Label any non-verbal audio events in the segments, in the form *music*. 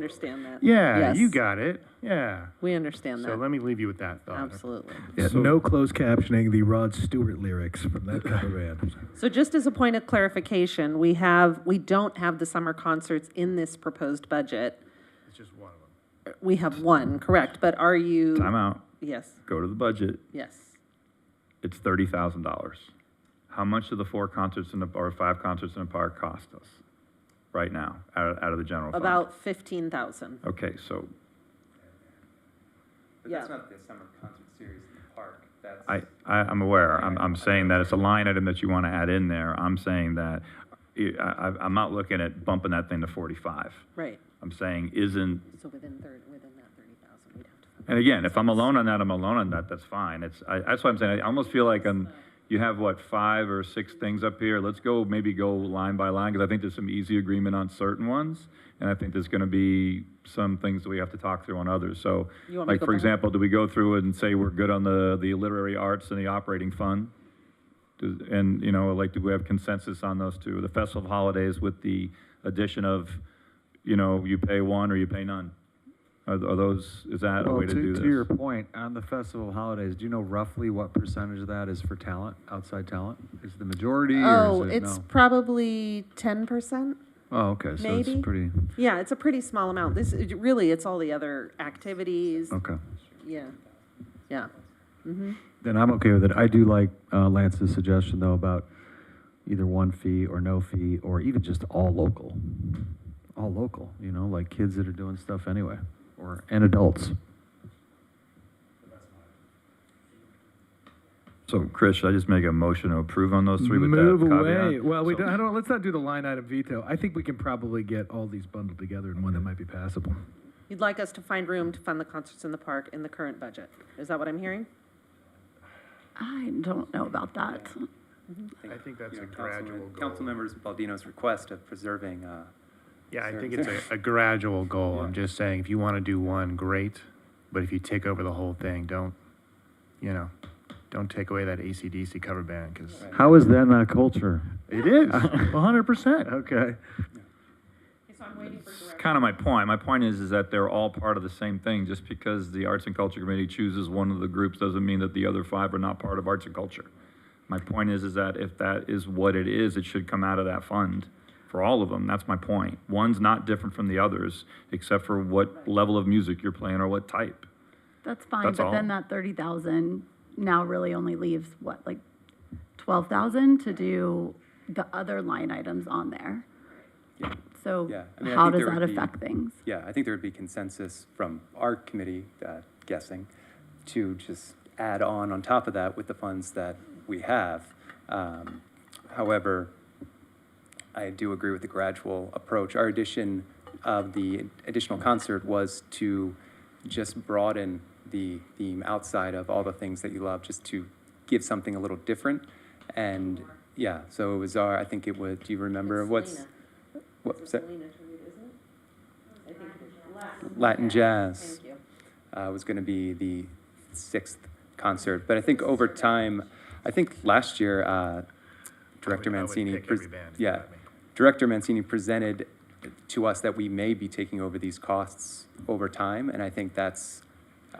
understand that. Yeah, Yes. you got it. Yeah. We understand So that, let me oh, leave you with that thought. absolutely. Yeah, no closed captioning the Rod Stewart lyrics from that cover band. So just as a point of clarification, we have, we don't have the summer concerts in this proposed budget. It's just one of them. We have one, correct, but are you? Time out. Yes, Go to the budget. yes. It's thirty thousand dollars. How much do the four concerts in the, or five concerts in a park cost us right now out of, out of the general fund? About fifteen thousand. Okay, so But that's Yeah. not the summer concert series in the park. That's I, I, I'm aware. I'm, I'm saying that it's a line item that you want to add in there. I'm saying that I, I, I'm not looking at bumping that thing to forty-five. Right, I'm saying isn't so within third, within that thirty thousand, we'd have to. And again, if I'm alone on that, I'm alone on that. That's fine. It's I, that's what I'm saying. I almost feel like I'm. You have what five or six things up here. Let's go maybe go line by line because I think there's some easy agreement on certain ones, and I think there's going to be some things that we have to talk through on others. So, You want me to like go for back? example, do we go through and say we're good on the the literary arts and the operating fund? Does- And, you know, like, do we have consensus on those two? The festival of holidays with the addition of, you know, you pay one or you pay none? Are are those, is that a Well, way to do to, to your this? point, on the festival of holidays, do you know roughly what percentage of that is for talent, outside talent? Is it the majority Oh, or is it it's no? probably ten percent? Oh, okay, so maybe. it's pretty, Yeah, it's a pretty small amount. This, it- really, it's all the other activities. okay. Yeah, yeah. Mm-hmm. Then I'm okay with it. I do like uh, Lance's suggestion though about either one fee or no fee, or even just all local. All local, you know, like kids that are doing stuff anyway, or, and adults. So, Chris, should I just make a motion to approve on those three with that Move caveat? away. Well, we So- don't, I don't. Let's not do the line item veto. I think we can probably get all these bundled together in one that might be passable. You'd like us to find room to fund the concerts in the park in the current budget. Is that what I'm hearing? I don't know about that. I think that's you know, a Councilman- gradual goal. Councilmembers Baldino's request of preserving, uh, Yeah, I think it's a, a gradual goal. I'm just saying, if you want to do one, great, but if you take over the whole thing, don't, you know, don't take away that ACDC cover band because Right. How is that not culture? it is *laughs* 100. percent Okay. So I'm waiting for It's kind of my point. My point is, is that they're all part of the same thing. Just because the Arts and Culture Committee chooses one of the groups doesn't mean that the other five are not part of Arts and Culture. My point is, is that if that is what it is, it should come out of that fund for all of them. That's my point. One's not different from the others, except for what level of music you're playing or what type. That's fine, That's but then all. that thirty thousand now really only leaves what, like twelve thousand to do the other line items on there? yeah, So Yeah, I mean, I how think does there would that be- affect things? yeah, I think there would be consensus from our committee, uh, guessing, to just add on on top of that with the funds that we have. Um, however, I do agree with the gradual approach. Our addition of the additional concert was to just broaden the theme outside of all the things that you love, just to give something a little different. And yeah, so it was our, I think it was, do you remember what's? What's that? Latin jazz Thank you. uh, was going to be the sixth concert. But I think over time, I think last year, uh, Director I would Mancini. pick pres- every band if you Yeah, let me. Director Mancini presented to us that we may be taking over these costs over time, and I think that's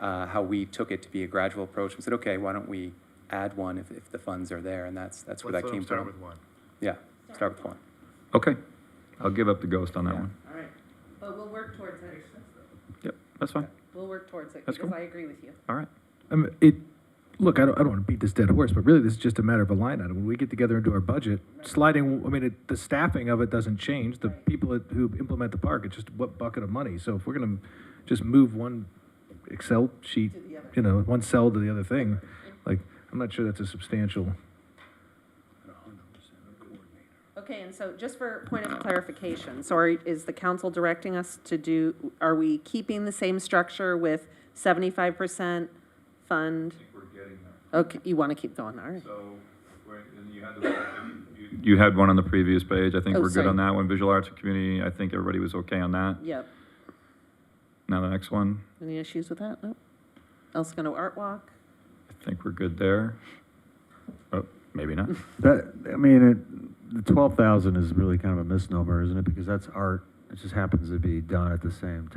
uh, how we took it to be a gradual approach. We said, okay, why don't we add one if, if the funds are there, and that's, that's where that came Start from. with one. Yeah, start with one. Okay, I'll give up the ghost on that Yeah. one. All right, but we'll work towards it. Yep, that's fine. We'll work towards it That's because cool. I agree with you. All right. Um, it. Look, I don't, I don't want to beat this dead horse, but really, this is just a matter of a line item. When we get together and do our budget, sliding. I mean, it, the staffing of it doesn't change. The people that, who implement the park, it's just what bucket of money. So if we're gonna just move one Excel sheet, To the other. you know, one cell to the other thing, like I'm not sure that's a substantial. Okay, and so just for point of clarification, so are, is the council directing us to do, are we keeping the same structure with seventy-five percent fund? We're getting there. Okay, you want to keep going, all right. So, where- and you had the- you- You had one on the previous page, I think Oh, we're good sorry. on that one, visual arts and community, I think everybody was okay on that. Yep. Now the next one, Any issues with that? Nope. Else gonna art walk? I think we're good there. Oh, *laughs* maybe not. *laughs* That, I mean, it, the twelve thousand is really kind of a misnomer, isn't it? Because that's art It just happens to be done at the same